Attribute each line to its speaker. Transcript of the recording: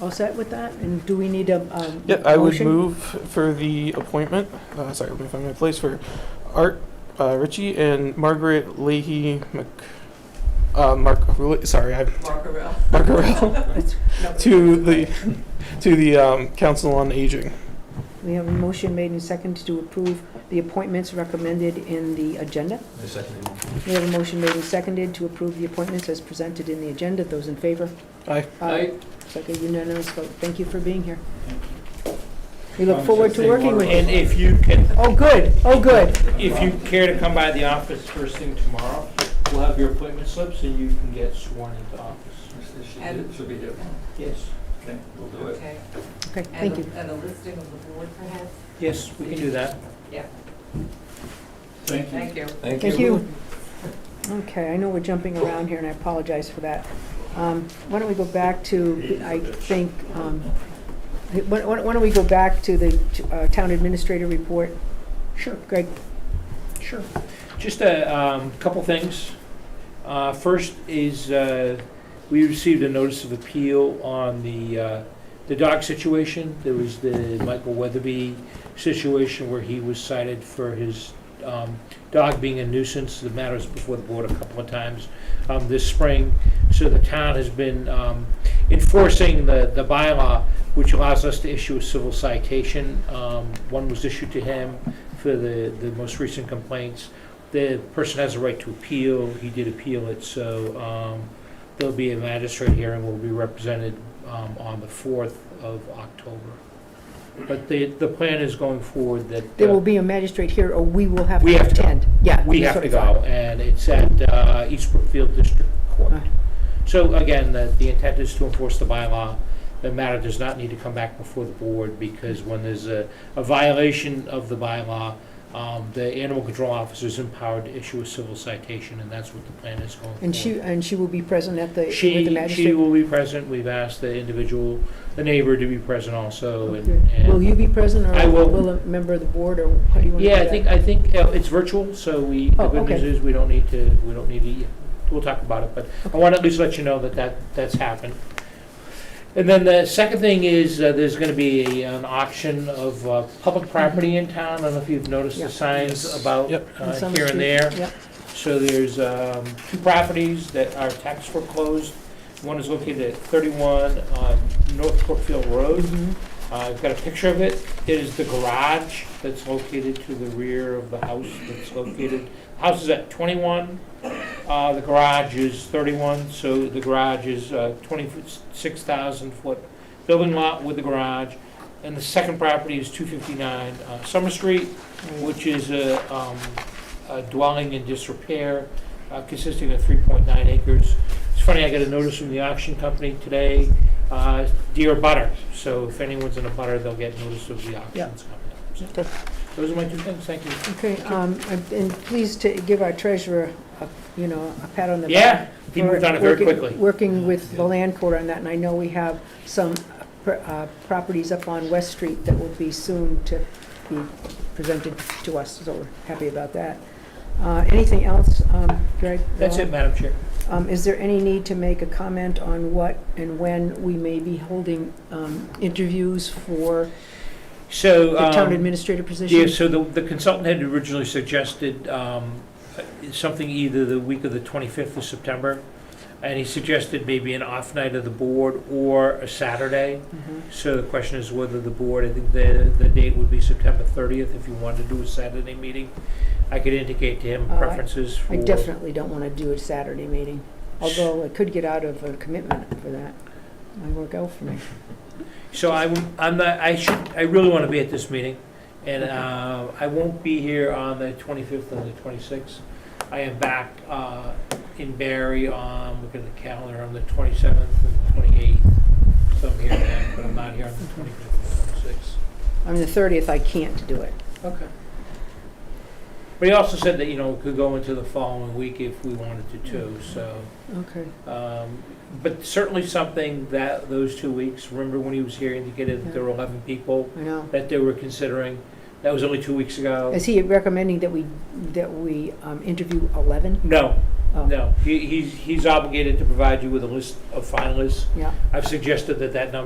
Speaker 1: all set with that? And do we need a, um,
Speaker 2: Yeah, I would
Speaker 1: motion?
Speaker 2: move for the appointment, uh, sorry, let me find my place, for Art uh, Ritchie and Margaret Leahy Mc, uh, Mark, sorry, I,
Speaker 3: Markarel.
Speaker 2: Markarel,
Speaker 3: No,
Speaker 2: to the, to the, um, Council on Aging.
Speaker 1: We have a motion made and seconded to approve the appointments recommended in the agenda.
Speaker 4: I second the motion.
Speaker 1: We have a motion made and seconded to approve the appointments as presented in the agenda. Those in favor?
Speaker 2: Aye.
Speaker 1: Aye. It's like a unanimous vote. Thank you for being here. We look forward to working with
Speaker 5: And
Speaker 1: you.
Speaker 5: if you can,
Speaker 1: Oh, good, oh, good.
Speaker 5: if you care to come by the office first thing tomorrow, we'll have your appointment slips and you can get sworn into office.
Speaker 3: And-
Speaker 4: Should be here.
Speaker 5: Yes,
Speaker 4: Okay, we'll do it.
Speaker 3: Okay.
Speaker 1: Okay,
Speaker 3: And
Speaker 1: thank
Speaker 3: a-
Speaker 1: you.
Speaker 3: And a listing of the board perhaps?
Speaker 5: yes, we can do that.
Speaker 4: Thank you.
Speaker 3: Thank you.
Speaker 1: Thank you. Okay, I know we're jumping around here, and I apologize for that. Um, Why don't we go back to, I think, um, why why- why don't we go back to the uh, town administrator report? Sure. Greg?
Speaker 5: Sure. Just a um, couple things. Uh, First is, uh, we received a notice of appeal on the, uh, the dog situation. There was the Michael Weatherby situation where he was cited for his um, dog being a nuisance. The matter was before the board a couple of times um, this spring. So the town has been um, enforcing the, the bylaw, which allows us to issue a civil citation. Um, One was issued to him, for the, the most recent complaints. The person has a right to appeal, he did appeal it, so um, there'll be a magistrate hearing, will be represented um, on the 4th of October. But the, the plan is going forward that.
Speaker 1: There
Speaker 5: uh,
Speaker 1: will be a magistrate here, or we will have
Speaker 5: We
Speaker 1: to
Speaker 5: have to go.
Speaker 1: attend. Yeah.
Speaker 5: we
Speaker 1: that's
Speaker 5: have to
Speaker 1: what I thought.
Speaker 5: go, and it's at uh, East Brookfield District Court.
Speaker 1: Right.
Speaker 5: So again, the the intent is to enforce the bylaw. The matter does not need to come back before the board, because when there's a a violation of the bylaw, um, the animal control officer is empowered to issue a civil citation, and that's what the plan is going for.
Speaker 1: And she, and she will be present at the, with the
Speaker 5: She, she
Speaker 1: magistrate?
Speaker 5: will be present. We've asked the individual, the neighbor to be present also, and.
Speaker 1: Okay. Oh, Will
Speaker 5: and-
Speaker 1: you be present, or
Speaker 5: I will.
Speaker 1: will a member of the board, or how do you want to do
Speaker 5: Yeah, I
Speaker 1: that?
Speaker 5: think, I think uh, it's virtual, so we, the
Speaker 1: Oh,
Speaker 5: good
Speaker 1: okay.
Speaker 5: news is, we don't need to, we don't need to, we'll talk about it, but I want to at least let you know that that, that's happened. And then the second thing is, uh, there's going to be an auction of uh, public property in town, I don't know if you've noticed
Speaker 1: Mm-hmm. Yeah.
Speaker 5: the signs about
Speaker 2: Yep.
Speaker 5: uh,
Speaker 1: On Summer
Speaker 5: here and
Speaker 1: Street.
Speaker 5: there.
Speaker 1: Yep.
Speaker 5: So there's um, two properties that are tax foreclosed. One is located at 31 on North Brookfield Road.
Speaker 1: Mhm.
Speaker 5: Uh, I've got a picture of it. It is the garage that's located to the rear of the house that's located. House is at 21, uh, the garage is 31, so the garage is uh, 26,000 foot building lot with the garage. And the second property is 259 uh, Summer Street, which is a um, a dwelling in disrepair uh, consisting of 3.9 acres. It's funny, I got a notice from the auction company today uh, dear butter, so if anyone's in a butter, they'll get notice of the
Speaker 1: Yeah.
Speaker 5: auctions coming up. So, Those are my two things, thank you.
Speaker 1: Okay, um, and- and please to give our treasurer, a you know, a pat on the back.
Speaker 5: Yeah, he moved on it very
Speaker 1: working-
Speaker 5: quickly.
Speaker 1: Working with the land court on that, and I know we have some pr- uh, properties up on West Street that will be soon to be presented to us, so we're happy about that. Uh, Anything else, um, Greg?
Speaker 5: That's it, Madam Chair.
Speaker 1: Um, Is there any need to make a comment on what and when we may be holding um, interviews for
Speaker 5: So.
Speaker 1: the town
Speaker 5: um,
Speaker 1: administrator position?
Speaker 5: Yeah, so the the consultant had originally suggested um, uh, something either the week of the 25th of September, and he suggested maybe an off night of the board or a Saturday.
Speaker 1: Mhm.
Speaker 5: So the question is whether the board, I think the, the date would be September 30th if you wanted to do a Saturday meeting. I could indicate to him
Speaker 1: Uh, I-
Speaker 5: preferences for.
Speaker 1: I definitely don't want to do a Saturday meeting, although I could get out of a commitment for that. Might work out for me.
Speaker 5: So I, w- I'm not, I should, I really want to be at this meeting, and uh, I won't be here on the 25th and the 26th. I am back uh, in Barry on, look at the calendar, on the 27th and 28th. So I'm here then, but I'm not here on the 25th and 26th.
Speaker 1: On the 30th, I can't do it.
Speaker 5: Okay. But he also said that, you know, it could go into the following week if we wanted to too,
Speaker 1: Mm-hmm.
Speaker 5: so.
Speaker 1: Okay.
Speaker 5: Um, But certainly something that, those two weeks, remember when he was here indicated that there were
Speaker 1: Mm-hmm.
Speaker 5: 11 people?
Speaker 1: I know.
Speaker 5: that they were considering. That was only two weeks ago.
Speaker 1: Is he recommending that we, that we um, interview 11?
Speaker 5: No,
Speaker 1: Oh,
Speaker 5: no. He, he's, he's obligated to provide you with a list of finalists.
Speaker 1: Yeah.
Speaker 5: I've suggested that that number